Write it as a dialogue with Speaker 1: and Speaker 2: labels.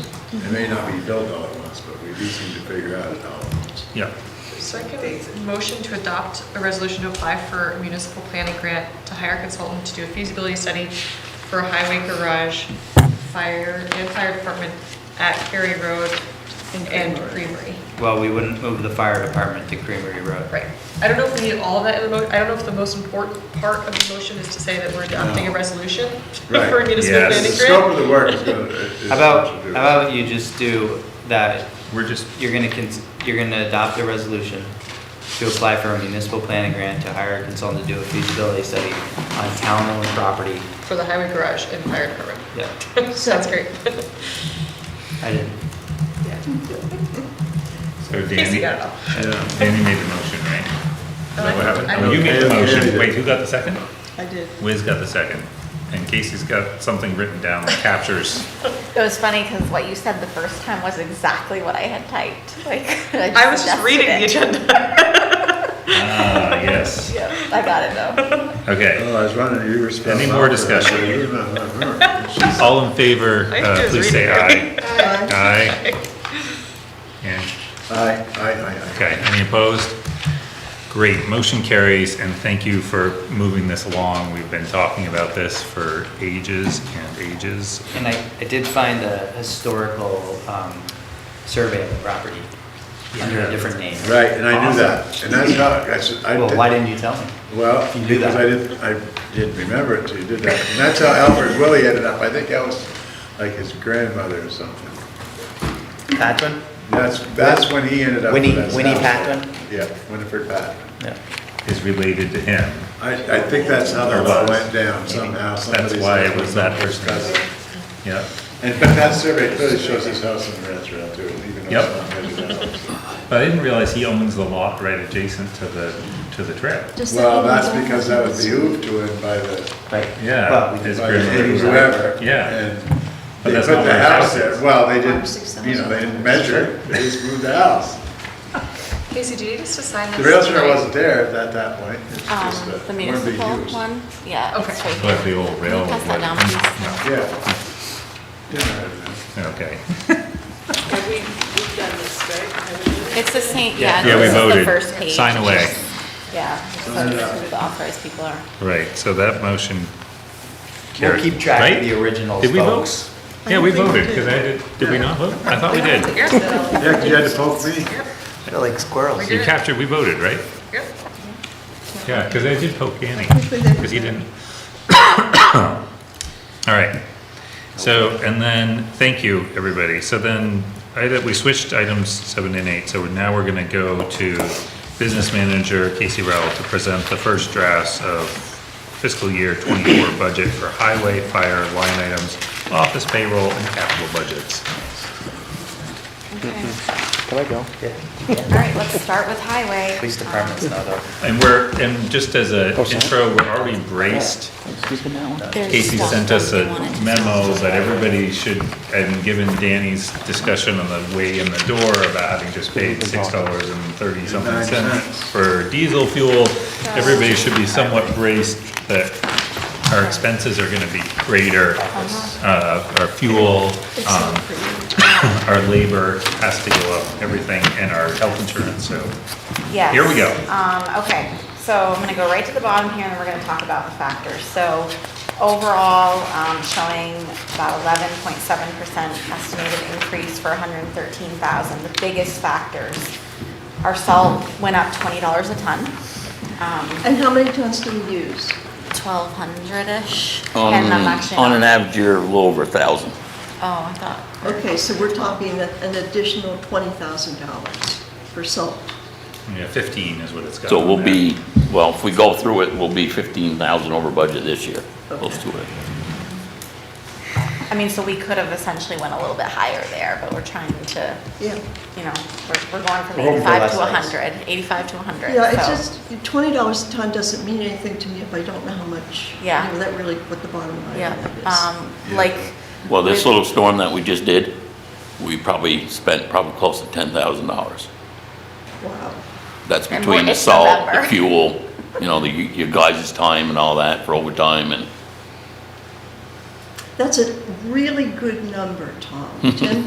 Speaker 1: It may not be built all at once, but we do seem to figure out it all at once.
Speaker 2: Yeah.
Speaker 3: Second, motion to adopt a resolution to apply for a municipal planning grant to hire a consultant to do a feasibility study for a highway garage, fire, and fire department at Cary Road and Creamery.
Speaker 4: Well, we wouldn't move the fire department to Creamery Road.
Speaker 3: Right. I don't know if we need all of that in the mo, I don't know if the most important part of the motion is to say that we're adopting a resolution
Speaker 1: Right.
Speaker 3: for a municipal
Speaker 2: Yes.
Speaker 1: The
Speaker 3: planning
Speaker 1: scope
Speaker 3: grant.
Speaker 1: of the work is going to.
Speaker 4: How about, how about you just do that,
Speaker 2: We're just,
Speaker 4: you're gonna, cons- you're gonna adopt a resolution to apply for a municipal planning grant to hire a consultant to do a feasibility study on town-owned property.
Speaker 3: For the highway garage and fire department.
Speaker 4: Yeah,
Speaker 3: That's great.
Speaker 4: I did.
Speaker 2: so
Speaker 3: Casey
Speaker 2: Danny,
Speaker 3: got it all.
Speaker 2: Danny made the motion, right? Is that what happened?
Speaker 3: I-
Speaker 2: No, You made the
Speaker 1: I-
Speaker 2: motion. Wait, who got the second?
Speaker 5: I did.
Speaker 2: Wiz got the second. And Casey's got something written down that captures.
Speaker 6: It was funny because what you said the first time was exactly what I had typed. Like I,
Speaker 3: I was just reading the
Speaker 6: adjusted
Speaker 3: agenda.
Speaker 2: Ah, yes.
Speaker 6: it. Yep, I got it though.
Speaker 2: Okay.
Speaker 1: Oh, I was running, you were spelling.
Speaker 2: Any more
Speaker 1: out for us.
Speaker 2: discussion?
Speaker 1: She's-
Speaker 2: All in favor,
Speaker 3: I
Speaker 2: uh,
Speaker 3: just
Speaker 2: please say aye.
Speaker 3: read
Speaker 2: Aye. And,
Speaker 1: Aye, aye, aye,
Speaker 2: okay, any opposed? Great, motion carries, and thank you for moving this along. We've been talking about this for ages and ages.
Speaker 4: And I, I did find a historical, um, survey of the property under
Speaker 2: Yeah.
Speaker 4: a different name.
Speaker 1: aye. Right, and I knew that, and that's how, that's, I.
Speaker 4: Well,
Speaker 1: did-
Speaker 4: why didn't you tell me?
Speaker 1: Well,
Speaker 4: You knew
Speaker 1: because
Speaker 4: that.
Speaker 1: I didn't, I didn't remember it till you did that. And that's how Albert Willie ended up. I think that was like his grandmother or something.
Speaker 4: Patwin?
Speaker 1: That's, that's when he ended up with
Speaker 4: Winnie-
Speaker 1: that
Speaker 4: Winnie
Speaker 1: sound.
Speaker 4: Patton?
Speaker 1: Yeah, Winifred Patton.
Speaker 4: Yeah.
Speaker 2: Is related to him.
Speaker 1: I, I think that's how
Speaker 2: Or
Speaker 1: that
Speaker 2: was.
Speaker 1: went down somehow. Somebody
Speaker 2: why
Speaker 1: said
Speaker 2: it was that
Speaker 1: somebody's
Speaker 2: person.
Speaker 1: cousin.
Speaker 2: Yep.
Speaker 1: And, but that survey clearly shows his house in the restaurant too, even though
Speaker 2: Yep.
Speaker 1: it's not residential.
Speaker 2: But I didn't realize he owns the lot right adjacent to the, to the trail.
Speaker 1: Well, that's because that was behooved to him by the,
Speaker 4: Right.
Speaker 2: Yeah,
Speaker 4: Well, we
Speaker 2: his
Speaker 4: did-
Speaker 1: by the
Speaker 2: grandmother was
Speaker 1: whoever.
Speaker 2: Yeah.
Speaker 1: And they
Speaker 2: But that's
Speaker 1: put
Speaker 2: not
Speaker 1: the
Speaker 2: where his
Speaker 1: house
Speaker 2: house
Speaker 1: there.
Speaker 2: is.
Speaker 1: Well, they didn't, you know, they didn't measure. They just moved the house.
Speaker 3: Casey, do you need us to sign
Speaker 1: The
Speaker 3: this?
Speaker 1: realtor wasn't there at that point. It's just a-
Speaker 6: Um, the
Speaker 1: weren't they
Speaker 6: municipal
Speaker 1: used?
Speaker 6: one, yeah. it's
Speaker 3: Okay.
Speaker 6: right
Speaker 2: But the
Speaker 6: here.
Speaker 2: old
Speaker 6: Can you
Speaker 2: railroad.
Speaker 6: pass that down, please?
Speaker 2: No.
Speaker 1: Yeah. Didn't matter then.
Speaker 2: Okay.
Speaker 5: Have we, we've done this, right? Haven't we?
Speaker 6: It's the same,
Speaker 4: Yeah.
Speaker 6: yeah.
Speaker 2: Yeah, we
Speaker 6: this is the first
Speaker 2: voted.
Speaker 6: page.
Speaker 2: Sign away.
Speaker 6: Yeah, so
Speaker 1: Sign it
Speaker 6: this
Speaker 1: up.
Speaker 6: is who the authorized people are.
Speaker 2: Right, so that motion
Speaker 4: We'll
Speaker 2: carried.
Speaker 4: keep track
Speaker 2: Right?
Speaker 4: of the original
Speaker 2: Did we
Speaker 4: folks.
Speaker 2: vote? Yeah, we voted, because I did, did we not vote? I thought we did.
Speaker 3: You're still-
Speaker 1: Yeah, 'cause you had to poke me.
Speaker 4: They're like squirrels.
Speaker 2: You captured, we voted, right?
Speaker 3: you're-
Speaker 2: Yeah, because I did poke Annie,
Speaker 5: we did.
Speaker 2: because he didn't. All right, so, and then, thank you, everybody. So then, I, we switched items seven and eight, so now we're gonna go to business manager Casey Rowell to present the first drafts of fiscal year twenty-four budget for highway, fire, line items, office payroll, and capital budgets.
Speaker 1: Mm-hmm.
Speaker 6: Okay.
Speaker 4: Can I go? Yeah.
Speaker 6: All right, let's start with highway.
Speaker 4: Police department's not up.
Speaker 2: And we're, and just as a
Speaker 7: Oh, sorry.
Speaker 2: intro, we're already braced
Speaker 7: Who's been that one?
Speaker 6: Um, There's
Speaker 2: Casey
Speaker 6: stuff
Speaker 2: sent us
Speaker 6: that
Speaker 2: a
Speaker 6: we wanted to
Speaker 2: memo that everybody should, and given Danny's discussion on the way in the door about having just paid six dollars and thirty something cents for diesel fuel, everybody should be somewhat braced that our expenses are gonna be greater.
Speaker 6: Uh-huh.
Speaker 2: Uh, our fuel, um, our labor has to go up, everything, and our health insurance, so.
Speaker 6: Yes.
Speaker 2: Here we go.
Speaker 6: Um, okay, so I'm gonna go right to the bottom here, and then we're gonna talk about the factors. So overall, um, showing about eleven point seven percent estimated increase for hundred and thirteen thousand. The biggest factors, our salt went up twenty dollars a ton, um,
Speaker 5: And how many tons do we use?
Speaker 6: twelve hundred-ish.
Speaker 7: On,
Speaker 6: and I'm actually
Speaker 7: on an
Speaker 6: not-
Speaker 7: average year, a little over a thousand.
Speaker 6: Oh, I thought,
Speaker 5: Okay, so we're talking a- an additional $20,000 for salt.
Speaker 2: Yeah, fifteen is what it's got.
Speaker 7: So
Speaker 2: on
Speaker 7: we'll
Speaker 2: there.
Speaker 7: be, well, if we go through it, we'll be fifteen thousand over budget this year, close to it.
Speaker 6: I mean, so we could have essentially went a little bit higher there, but we're trying to,
Speaker 5: Yeah.
Speaker 6: you know, we're, we're going from
Speaker 4: We're hoping for
Speaker 6: eighty-five to
Speaker 4: less ice.
Speaker 6: hundred, eighty-five to hundred, so.
Speaker 5: Yeah, it's just, $20 a ton doesn't mean anything to me if I don't know how much. you
Speaker 6: Yeah.
Speaker 5: know, That really, what the bottom line
Speaker 6: Yeah,
Speaker 5: of that is.
Speaker 6: um, like.
Speaker 7: Well, this
Speaker 6: with-
Speaker 7: little storm that we just did, we probably spent probably close to ten thousand dollars.
Speaker 5: Wow.
Speaker 7: That's
Speaker 6: And
Speaker 7: between the
Speaker 6: it's
Speaker 7: salt, the
Speaker 6: November.
Speaker 7: fuel, you know, the, your guys' time and all that for overtime and
Speaker 5: That's a really good number, Tom. Ten